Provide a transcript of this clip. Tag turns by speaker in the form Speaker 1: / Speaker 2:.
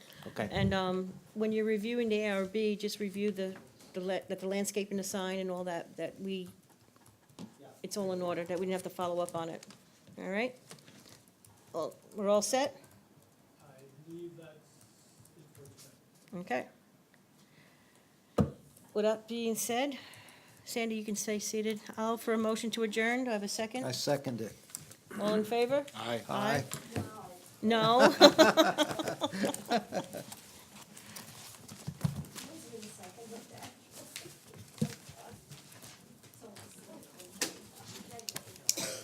Speaker 1: Okay.
Speaker 2: And um, when you're reviewing the ARB, just review the, the la- that the landscape and the sign and all that, that we, it's all in order, that we didn't have to follow up on it. All right? Well, we're all set?
Speaker 3: I believe that's it for tonight.
Speaker 2: Okay. With that being said, Sandy, you can stay seated. I'll for a motion to adjourn. Do I have a
Speaker 1: I
Speaker 2: second?
Speaker 1: second it.
Speaker 2: All in favor?
Speaker 1: Aye.
Speaker 2: No?